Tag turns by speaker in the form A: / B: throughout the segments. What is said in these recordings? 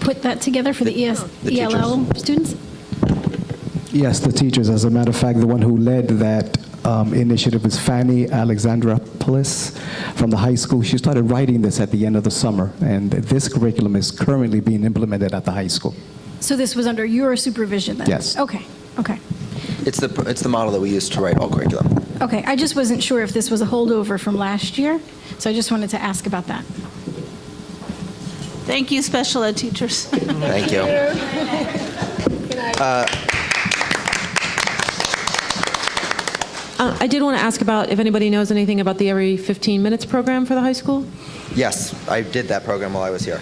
A: put that together for the E ES,
B: The teachers.
A: ELL students?
C: Yes, the teachers. As a matter of fact, the one who led that um, initiative is Fanny Alexandropoulos from the high school. She started writing this at the end of the summer, and this curriculum is currently being implemented at the high school.
A: So this was under your supervision then?
C: Yes.
A: Okay, okay,
B: It's the, it's the model that we use to write all curriculum.
A: okay. I just wasn't sure if this was a holdover from last year, so I just wanted to ask about that.
D: Thank you, special ed teachers.
B: Thank you.
E: Uh, I did want to ask about if anybody knows anything about the Every 15 Minutes program for the high school?
B: Yes, I did that program while I was here.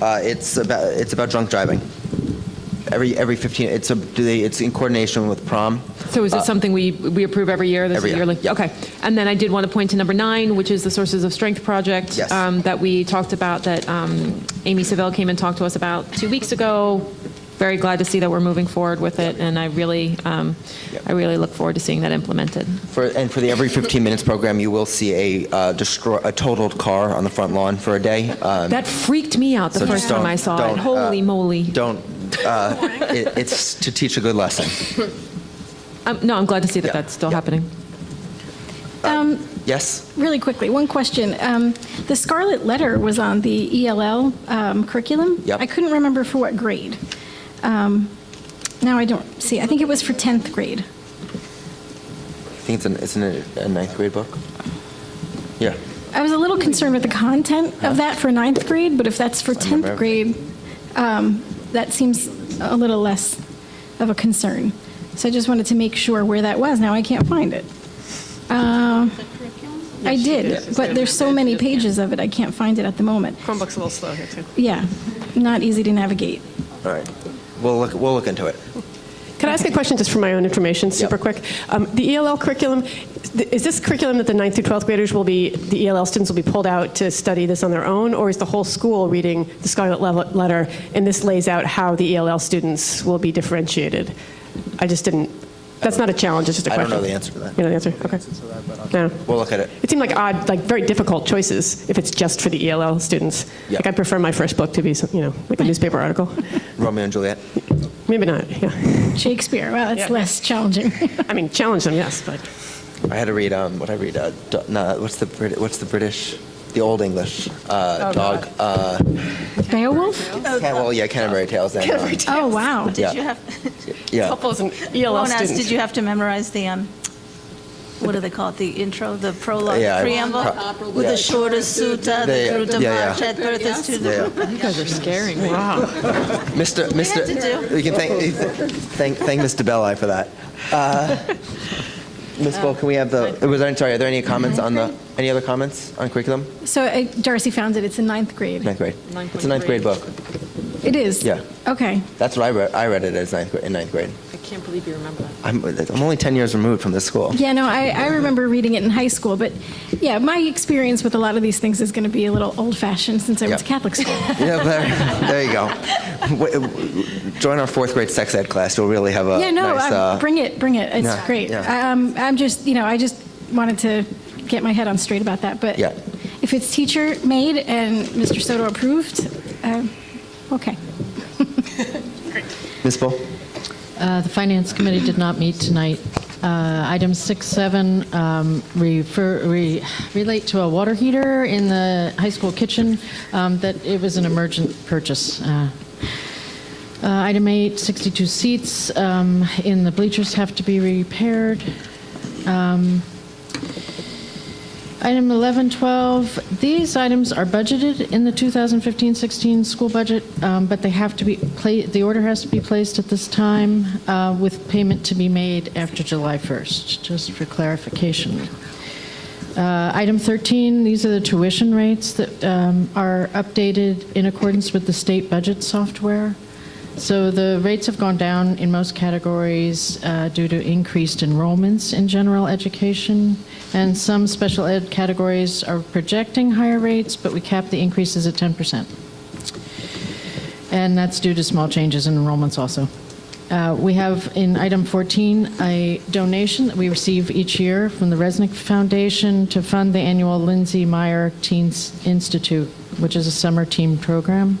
B: Uh, it's about it's about drunk driving. Every every 15, it's a do they, it's in coordination with prom.
E: So is it something we, we approve every year? This
B: Uh, every
E: is
B: year.
E: yearly? Okay. And then I did want to point to number nine, which is the Sources of Strength project
B: Yes.
E: um, that we talked about, that um, Amy Savell came and talked to us about two weeks ago. Very glad to see that we're moving forward with it, and I really, um,
B: Yep.
E: I really look forward to seeing that implemented.
B: For, and for the every 15 minutes program, you will see a uh, destroy a totaled car on the front lawn for a day. Um,
E: That freaked me out the
B: so just
E: first time
B: don't-
E: I saw
B: don't,
E: it.
B: uh,
E: Holy moly.
B: Don't. Uh, it, it's to teach a good lesson.
E: Um, No, I'm glad to see
B: Yeah.
E: that that's still
B: Yeah.
E: happening.
B: Yes.
A: Um, Really quickly, one question. Um, The Scarlet Letter was on the ELL um, curriculum?
B: Yep.
A: I couldn't remember for what grade. Um, Now I don't see, I think it was for 10th grade.
B: I think it's an it's an, a ninth grade book. Yeah.
A: I was a little concerned with the content of that for ninth grade, but if that's for
B: I remember
A: 10th grade, um, that seems a little less of a concern. So I just wanted to make sure where that was. Now I can't find it. Um, I did, but there's so many pages of it, I can't find it at the moment.
F: Chromebook's a little slow here, too.
A: Yeah, not easy to navigate.
B: All right. We'll look we'll look into it.
F: Can I ask a question just for my own information, super
B: Yeah.
F: quick? Um, the ELL curriculum, th- is this curriculum that the 9th through 12th graders will be, the ELL students will be pulled out to study this on their own, or is the whole school reading the Scarlet Lev- Letter and this lays out how the ELL students will be differentiated? I just didn't, that's not a challenge, it's just a
B: I don't
F: question.
B: know the answer to that.
F: You know the answer? Okay. No.
B: We'll look at it.
F: It seemed like odd, like very difficult choices if it's just for the ELL students.
B: Yeah.
F: Like I prefer my first book to be, some- you know, like a newspaper article.
B: Romeo and Juliet.
F: Maybe not, yeah.
A: Shakespeare, wow, that's
F: Yeah.
A: less challenging.
F: I mean, challenge them, yes, but.
B: I had to read um, what I read. Uh, do, no, what's the Brit- what's the British, the Old English
D: Oh,
B: uh, dog? Uh,
A: Beowulf?
B: Can- well, yeah, Canterbury Tales. And, um,
A: Oh, wow.
B: Yeah.
D: Did you have,
B: yeah.
F: Couples and
D: I
F: ELL
D: want to ask,
F: students.
D: did you have to memorize the, um, what do they call it, the intro, the prologue,
B: Yeah, I-
D: preamble?
B: pro-
D: With
B: yeah.
D: the shortest sutta,
B: They-
D: the Druta
B: yeah, yeah.
D: Parshat, Bertha Stuta.
B: Yeah.
E: You guys are scaring me.
B: Mr. Mr.
D: had to do.
B: We can thank you thank thank Mr. Belli for that. Uh,
D: Oh.
B: Ms. Bull, can we have the? Was there, sorry. Are there any comments on the? Any other comments on curriculum?
A: So uh, Darcy found it, it's in ninth grade.
B: Ninth grade. It's a ninth grade book.
A: It is?
B: Yeah.
A: Okay.
B: That's what I read. I read it as ninth grade, in ninth grade.
E: I can't believe you remember that.
B: I'm, I'm only ten years removed from this school.
A: Yeah, no, I, I remember reading it in high school, but yeah, my experience with a lot of these things is going to be a little old fashioned since I went to
B: Yeah. Uh,
A: Catholic school.
B: Yeah, there, there you go. W- Join our fourth grade sex ed class. You'll really have a
A: yeah, no,
B: nice.
A: um,
B: uh,
A: bring it, bring it. It's
B: yeah,
A: great.
B: yeah.
A: Um, I'm just, you know, I just wanted to get my head on straight about that. But
B: Yeah.
A: if it's teacher made and Mr. Soto approved, um, okay.
B: Ms. Bull?
G: Uh, The Finance Committee did not meet tonight. Uh, Item 6.7 um, refer, re- relate to a water heater in the high school kitchen, um, that it was an emergent purchase. Uh, uh, Item 8, 62 seats um, in the bleachers have to be repaired. Um, Item 11, 12, these items are budgeted in the 2015-16 school budget, um, but they have to be, pla- the order has to be placed at this time uh, with payment to be made after July 1st, just for clarification. Uh, Item 13, these are the tuition rates that um, are updated in accordance with the state budget software. So the rates have gone down in most categories uh, due to increased enrollments in general education, and some special ed categories are projecting higher rates, but we cap the increases at 10%. And that's due to small changes in enrollments also. Uh, We have in item 14, a donation that we receive each year from the Resnick Foundation to fund the annual Lindsay Meyer Teens Institute, which is a summer team program.